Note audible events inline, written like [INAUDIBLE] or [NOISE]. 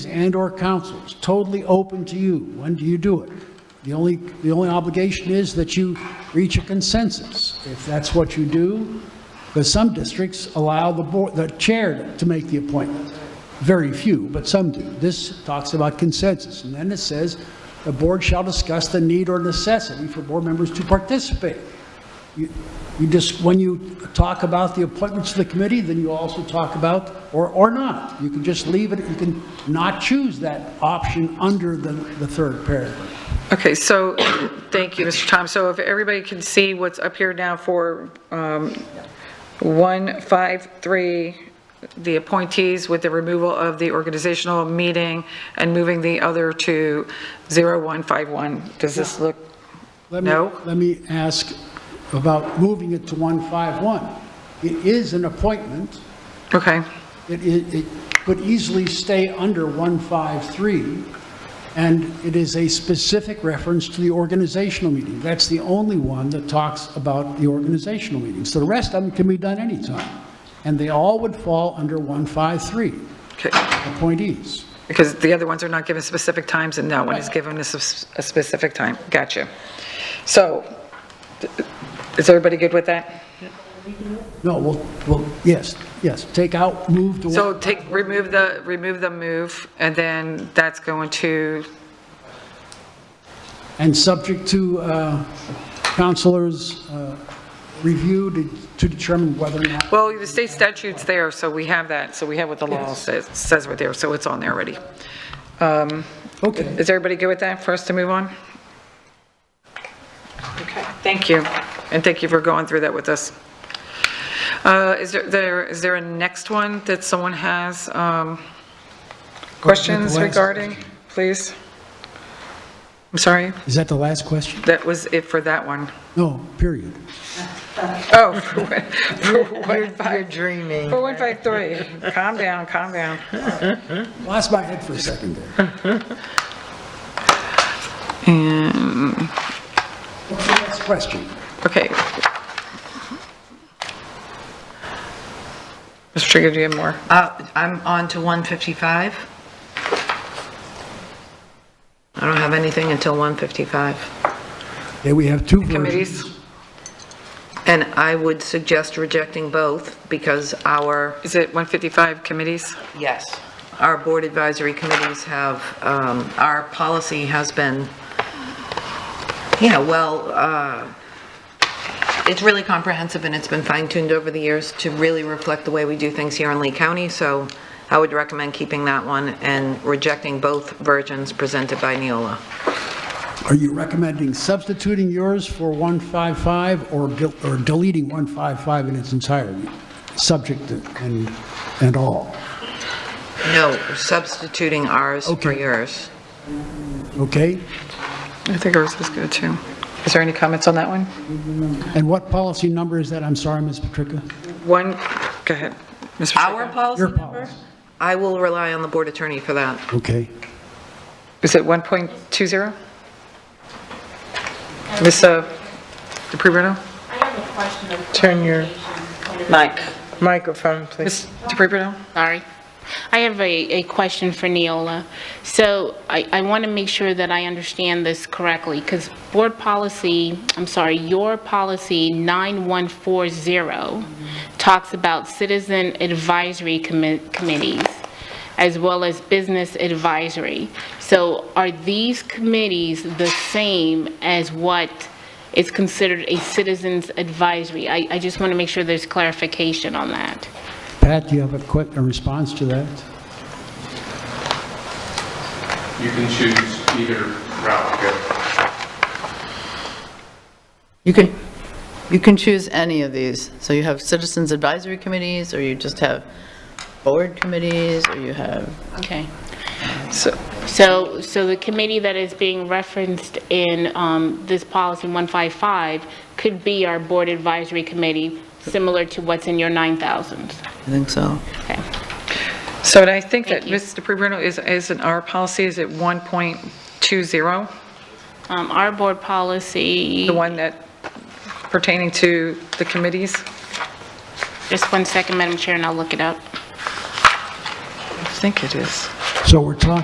and/or councils, totally open to you. When do you do it? The only, the only obligation is that you reach a consensus, if that's what you do. Because some districts allow the board, the chair to make the appointment. Very few, but some do. This talks about consensus, and then it says, "The board shall discuss the need or necessity for board members to participate." You you just, when you talk about the appointments to the committee, then you also talk about, or, or not. You can just leave it, you can not choose that option under the, the third paragraph. Okay, so, thank you, Mr. Tom. So if everybody can see what's up here now for um, 153, the appointees with the removal of the organizational meeting and moving the other to 0151. Does this look, Let me- No. Let me ask about moving it to 151. It is an appointment. okay, It, it, it could easily stay under 153, and it is a specific reference to the organizational meeting. That's the only one that talks about the organizational meetings. The rest of them can be done anytime, and they all would fall under 153, okay, appointees. because the other ones are not given specific times, and that one is given a sus- a specific time. Gotcha. So, th- is everybody good with that? No, well, well, yes, yes, take out, move to So take, remove the, remove the move, and then that's going to, And subject to uh, counselors' uh, review to- to determine whether or not, well, the state statute's there, so we have that, so we have what the law says, says right there, so it's on there already. okay. Is everybody good with that, for us to move on? Okay, thank you, and thank you for going through that with us. Uh, Is there- there, is there a next one that someone has? um, Questions last regarding, please? I'm sorry, Is that the last question? that was it for that one. No, period. [LAUGHS] Oh, for one- for 153. You're dreaming. For 153. Calm down, calm down. Lost my head for a second there. What's the next question? Okay. Mr. Trigger, do you have more? Uh, I'm on to 155. I don't have anything until 155. Okay, we have two versions. Committees? And I would suggest rejecting both because our, Is it 155 committees? yes, our board advisory committees have, um, our policy has been, yeah, well, uh, it's really comprehensive and it's been fine-tuned over the years to really reflect the way we do things here in Lee County. So I would recommend keeping that one and rejecting both versions presented by Neola. Are you recommending substituting yours for 155 or del- or deleting 155 in its entirety, subject and, and all? No, substituting ours for Okay. yours. Okay? I think ours was good, too. Is there any comments on that one? And what policy number is that? I'm sorry, Ms. Patrica. One, go ahead. Mr. Our Trigger. policy Your number? policy. I will rely on the board attorney for that. Okay. Is it 1.20? Ms. DePrivino? I have a question of Turn your- clarification. Microphone, Ms. please. DePrivino? Sorry. I have a, a question for Neola. So I, I want to make sure that I understand this correctly, because board policy, I'm sorry, your policy 9140 talks about citizen advisory commi- committees, as well as business advisory. So are these committees the same as what is considered a citizens advisory? I, I just want to make sure there's clarification on that. Pat, do you have a quick, a response to that? You can choose either route to go. You can, you can choose any of these. So you have citizens advisory committees, or you just have board committees, or you have, Okay. So- So, so the committee that is being referenced in um, this policy 155 could be our board advisory committee, similar to what's in your 9,000s. I think so. Okay. So and I think that Thank you. Ms. DePrivino is, is in our policy, is it 1.20? Um, Our board policy, The one that pertaining to the committees? just one second, Madam Chair, and I'll look it up. I think it is. So we're talking